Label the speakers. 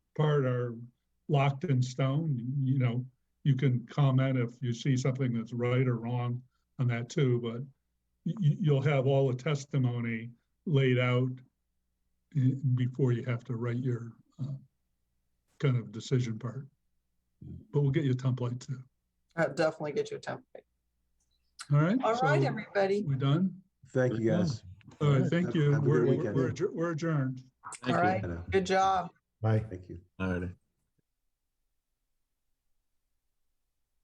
Speaker 1: part are locked in stone, you know, you can comment if you see something that's right or wrong on that too, but you, you'll have all the testimony laid out i- before you have to write your uh, kind of decision part. But we'll get you a template too.
Speaker 2: I'll definitely get you a template.
Speaker 1: All right?
Speaker 2: All right,
Speaker 1: so
Speaker 2: everybody.
Speaker 1: We done?
Speaker 3: Thank you,
Speaker 4: Yeah.
Speaker 3: guys.
Speaker 1: All right, thank you.
Speaker 3: Have a good
Speaker 1: We're,
Speaker 3: weekend.
Speaker 1: we're adjour- we're adjourned.
Speaker 2: All right.
Speaker 3: Hello.
Speaker 2: Good job.
Speaker 4: Bye.
Speaker 3: Thank you.
Speaker 4: All righty.